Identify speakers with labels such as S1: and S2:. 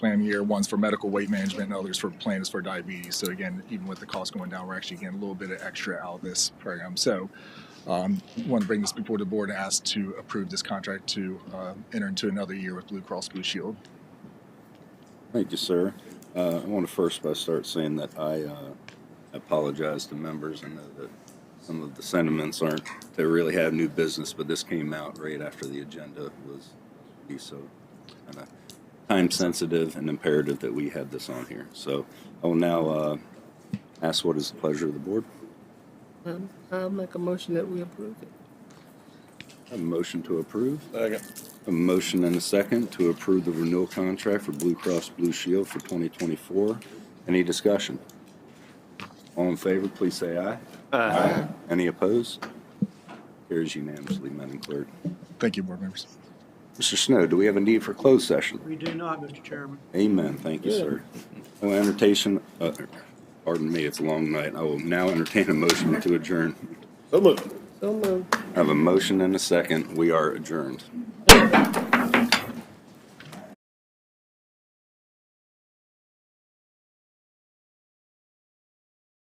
S1: plan year. One's for medical weight management, and others for plan is for diabetes. So again, even with the cost going down, we're actually getting a little bit of extra out of this program. So um, want to bring this before the board and ask to approve this contract to uh, enter into another year with Blue Cross Blue Shield.
S2: Thank you, sir. Uh, I want to first by start saying that I uh, apologize to members. I know that some of the sentiments aren't to really have new business, but this came out right after the agenda was released, so kind of time sensitive and imperative that we had this on here. So I will now uh, ask what is the pleasure of the board.
S3: Um, I'll make a motion that we approve it.
S2: I have a motion to approve.
S4: Second.
S2: A motion and a second to approve the renewal contract for Blue Cross Blue Shield for 2024. Any discussion? All in favor, please say aye. Aye. Any opposed? Carries unanimously, Madam Clerk.
S1: Thank you, board members.
S2: Mr. Snow, do we have a need for closed session?
S5: We do not, Mr. Chairman.
S2: Amen. Thank you, sir. I will entertain, uh, pardon me, it's a long night. I will now entertain a motion to adjourn.
S4: So moved.
S3: So moved.
S2: I have a motion and a second. We are adjourned.